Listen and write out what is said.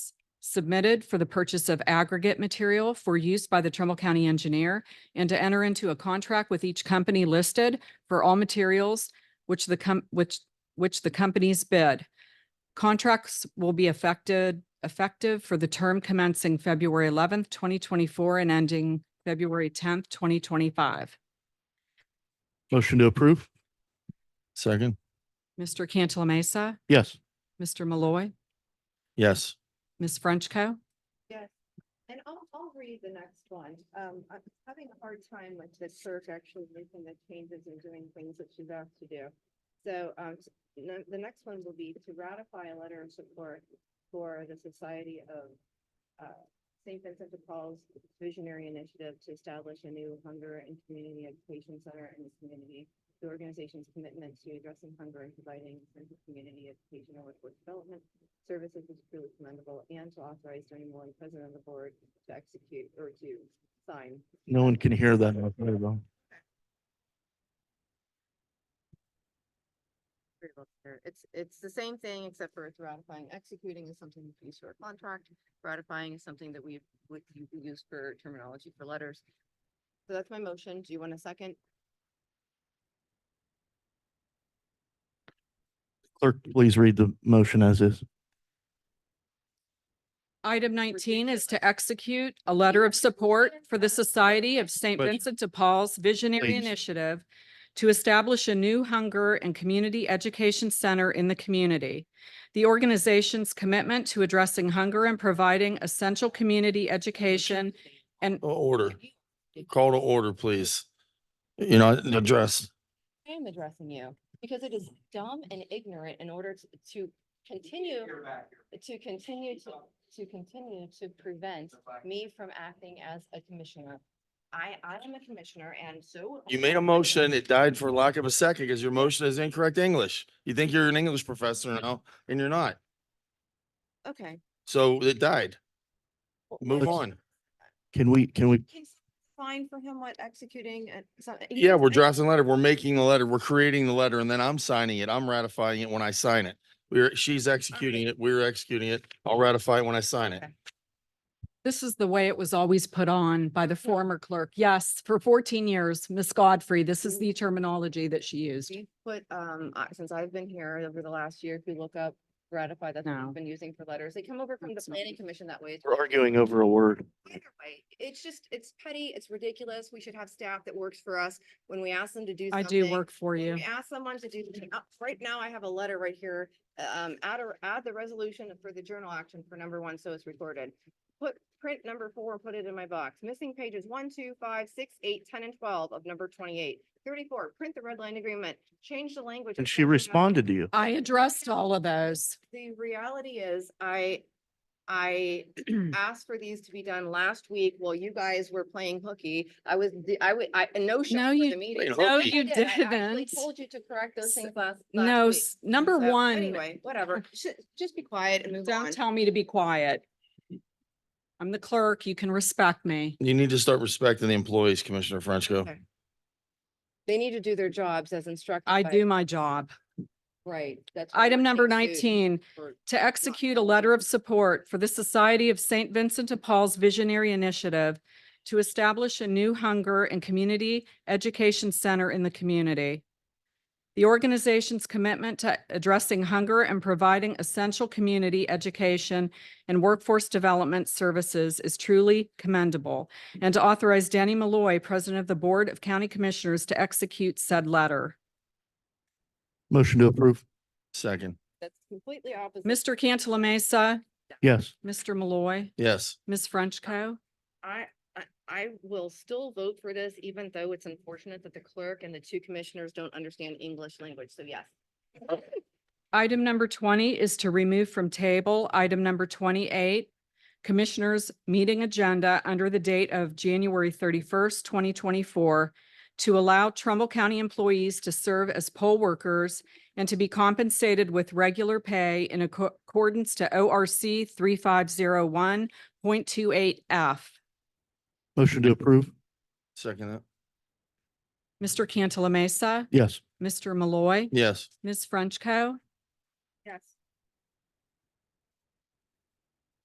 submitted for the purchase of aggregate material for use by the Trumbull County Engineer and to enter into a contract with each company listed for all materials which the com- which which the companies bid. Contracts will be affected effective for the term commencing February eleventh, twenty twenty-four and ending February tenth, twenty twenty-five. Motion to approve. Second. Mr. Cantala Mesa, Yes. Mr. Malloy, Yes. Ms. Frenchco. Yes, and I'll, I'll read the next one. Um, I'm having a hard time with the clerk actually making the changes and doing things that she's asked to do. So, um, s- no- the next one will be to ratify a letter of support for the Society of, uh, St. Vincent de Paul's visionary initiative to establish a new hunger and community education center in the community. The organization's commitment to addressing hunger and providing essential community educational and workforce development services is truly commendable and to authorize Attorney Moore, President of the Board, to execute or to sign. No one can hear that. out there, though. It's, it's the same thing except for it's ratifying, executing is something you use for a contract, ratifying is something that we would you would use for terminology for letters. So that's my motion. Do you want a second? Clerk, please read the motion as is. Item nineteen is to ridiculous. execute a letter of support for the Society of St. But- Vincent de Paul's Visionary Please. Initiative to establish a new hunger and community education center in the community. The organization's commitment to addressing hunger and providing essential community education and Order. Call to order, please. You know, address. I am addressing you because it is dumb and ignorant in order to- to continue, to continue to, to continue to prevent me from acting as a commissioner. I, I am a commissioner and so. You made a motion, it died for lack of a second because your motion is incorrect English. You think you're an English professor now and you're not. Okay. So it died. Move on. Can we, can we, Fine for him what executing and. so- he Yeah, was- we're drafting a letter. We're making the letter. We're creating the letter and then I'm signing it. I'm ratifying it when I sign it. We're, she's executing it. We're executing it. I'll ratify it when I sign it. Okay. This is the way it was always put on by the former clerk. Yes, for fourteen years, Miss Godfrey, this is the terminology that she used. We put, um, uh, since I've been here over the last year, if you look up ratify that No. we've been using for letters, they come over from the That's not planning it. commission that way. It's we're arguing over a word. Either way, it's just, it's petty, it's ridiculous. We should have staff that works for us when we ask them to do I something. do work for you. We ask someone to do, something- uh, right now I have a letter right here, um, add, a- add the resolution for the journal action for number one, so it's recorded. Put print number four, put it in my box. Missing pages one, two, five, six, eight, ten, and twelve of number twenty-eight. Thirty-four, print the red line agreement, change the language. And of she something else. responded to you. I addressed all of those. The reality is, I, I asked for these to be done last week while you guys were playing hooky. I was, the- I would, I, no show No, for you- the meeting. Playing No, hooky? I you did. I actually didn't. Told you to correct those S- things last. last No, week. s- number So, one, Anyway, whatever. Sh- Just be quiet and move on. don't tell me to be quiet. I'm the clerk. You can respect me. You need to start respecting the employees, Commissioner Frenchco. Okay. They need to do their jobs as instructed. I by- do my job. Right. that's what Item we're number being sued nineteen, for. to execute a letter of support for the Society of St. Vincent de Paul's Visionary Initiative to establish a new hunger and community education center in the community. The organization's commitment to addressing hunger and providing essential community education and workforce development services is truly commendable, and to authorize Danny Malloy, President of the Board of County Commissioners, to execute said letter. Motion to approve. Second, That's completely opposite. Mr. Cantala Mesa, Yes. Mr. Malloy, yes. Ms. Frenchco. I, I, I will still vote for this, even though it's unfortunate that the clerk and the two commissioners don't understand English language, so yes. Item number twenty is to remove from table item number twenty-eight, Commissioners' Meeting Agenda under the date of January thirty-first, twenty twenty-four, to allow Trumbull County employees to serve as poll workers and to be compensated with regular pay in acco- accordance to O R C three five zero one point two eight F. Motion to approve. Second, that. Mr. Cantala Mesa, Yes. Mr. Malloy, yes. Ms. Frenchco.